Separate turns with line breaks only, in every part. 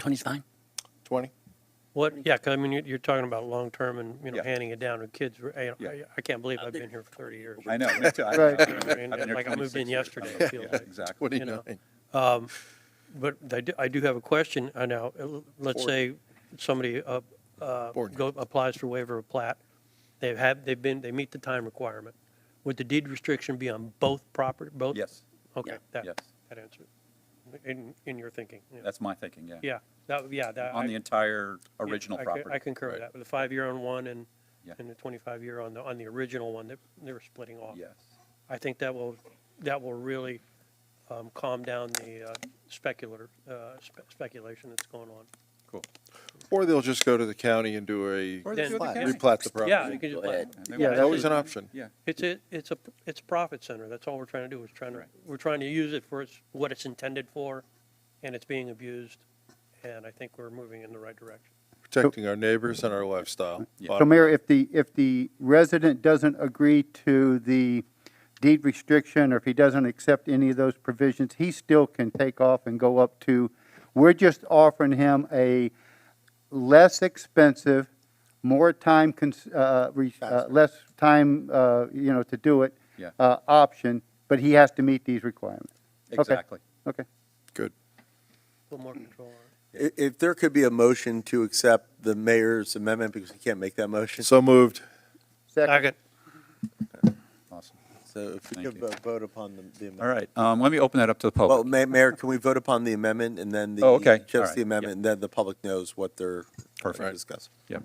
20's fine.
20?
What, yeah, 'cause I mean, you're, you're talking about long-term and, you know,
Yeah.
handing it down to kids. I, I-
Yeah.
I can't believe I've been here for 30 years.
I know, me too. I-
Right.
I've been
And
here
Like I moved
26
in
years.
yesterday,
Yeah,
it feels like.
Exactly.
29.
Um, But I do, I do have a question. I know, uh, let's
Forward.
say somebody uh, uh,
Forward.
go- applies for waiver of plat. They've had, they've been, they meet the time requirement. Would the deed restriction be on both property, both?
Yes,
Okay,
Yeah.
that,
Yes.
that answers, it. in, in your thinking. yeah.
that's my thinking, yeah.
Yeah, that, yeah. that-
On
I-
the entire
yeah,
original
I co-
property.
I concur with
Right.
that, with the five-year on one and,
Yeah.
and the twenty-five-year on the, on the original one that they were splitting off.
Yes,
I think that will, that will really um, calm down the uh, speculator, uh, spe- speculation that's going on.
cool.
Or they'll just go to the county and do a,
Or they
Then-
do it
Flat.
again.
replat the
Yeah, you
property.
can just.
Go
let-
ahead.
Maybe
Yeah,
we
that
should-
was an option.
Yeah,
It's a, it's a, it's a profit center, that's all we're trying to do, is trying to,
Right.
we're trying to use it for its, what it's intended for, and it's being abused, and I think we're moving in the right direction.
Protecting our neighbors and our lifestyle.
Yeah.
Bottom-
So Mayor, if the, if the resident doesn't agree to the deed restriction, or if he doesn't accept any of those provisions, he still can take off and go up to, we're just offering him a less expensive, more time, cons- uh, re- uh,
Faster.
less time, uh, you know, to do it.
Yeah.
Uh, option, but he has to meet these requirements. Okay.
exactly.
Okay.
Good.
A little more control on it.
I- If there could be a motion to accept the mayor's amendment, because we can't make that motion, so
So moved.
Second.
Awesome.
if we
Thank
could
you.
vo- vote upon the the amendment.
All right, um, let me open that up to the public.
Well, Ma- Mayor, can we vote upon the amendment and then the?
Oh, okay. All
Just
right.
the amendment, and then the public knows what they're what they're
Perfect.
discussing.
Yep.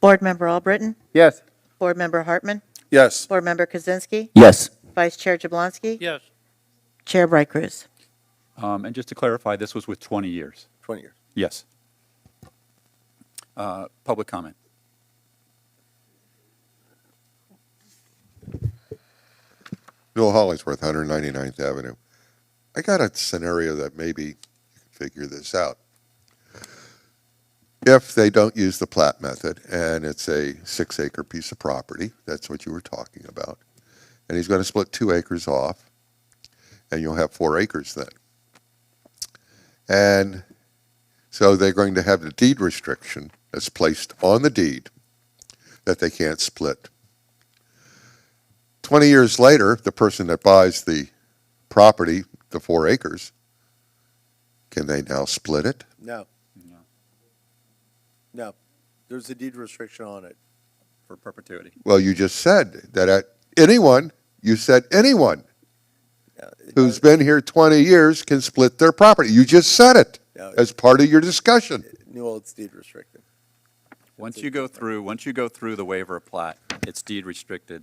Board Member Albritton?
Yes.
Board Member Hartman?
Yes.
Board Member Kaczynski?
Yes.
Vice Chair Jablonski?
Yes,
Chair Bright Cruz?
Um, and just to clarify, this was with 20 years.
20 years.
Yes. Uh, Public comment.
Bill Hollingsworth, 199th Avenue. I got a scenario that maybe you could figure this out. If they don't use the plat method and it's a six acre piece of property, that's what you were talking about, and he's going to split two acres off, and you'll have four acres then. And so they're going to have the deed restriction that's placed on the deed that they can't split. 20 years later, the person that buys the property, the four acres, can they now split it?
No.
No.
No. There's a deed restriction on it.
For perpetuity.
Well, you just said that at anyone, you said anyone
Yeah.
who's been here 20 years can split their property. You just said it
No, it-
as part of your discussion.
Well, it's deed restricted.
Once you go through, once you go through the waiver of plat, it's deed restricted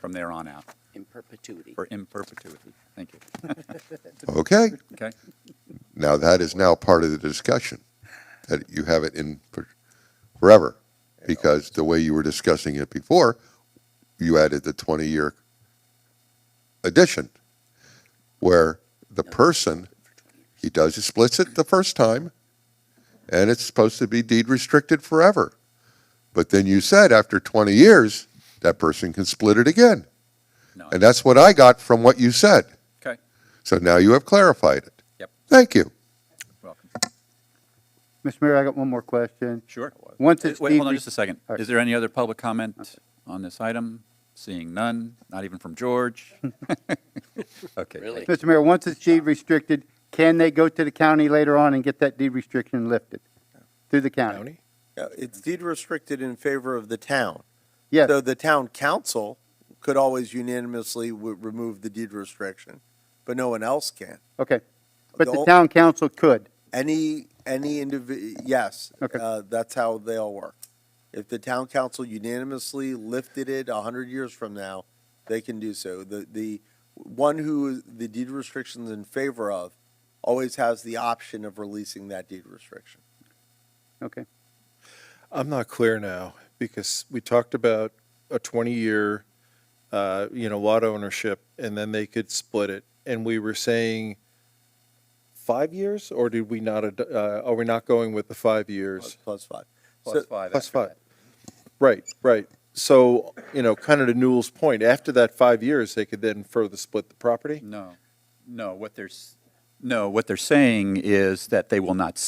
from there on out,
In perpetuity.
for in perpetuity. Thank you.
Okay?
Okay?
Now that is now part of the discussion that you have it in for- forever because the way you were discussing it before, you added the 20 year addition where the person he does he splits it the first time and it's supposed to be deed restricted forever. But then you said after 20 years, that person can split it again.
No,
And that's what I got from what you said.
Okay.
So now you have clarified it.
Yep.
Thank you.
welcome.
Mr. Mayor, I got one more question.
Sure.
Once
Wait,
it's.
hold on just a second.
All right.
Is there any other public comment on this item? Seeing none, not even from George? Okay.
Really?
thank you.
Mr. Mayor, once it's deed restricted, can they go to the county later on and get that deed restriction lifted through the county?
County?
Yeah, It's deed restricted in favor of the town.
Yes,
So the town council could always unanimously w- remove the deed restriction, but no one else can.
okay. But
The
the
ol-
town council could.
Any, any individ, yes.
Okay.
Uh, that's how they all work. If the town council unanimously lifted it a hundred years from now, they can do so. The, the one who the deed restriction's in favor of always has the option of releasing that deed restriction.
Okay.
I'm not clear now because we talked about a 20-year, uh, you know, lot ownership and then they could split it. And we were saying five years or did we not, ad- uh, are we not going with the five years?
Plus- Plus five.
Plus
So-
five.
Plus
after
five.
that.
Right, right. So, you know, kind of to Newell's point, after that five years, they could then further split the property?
No, no, what there's, No, what they're saying is that they will not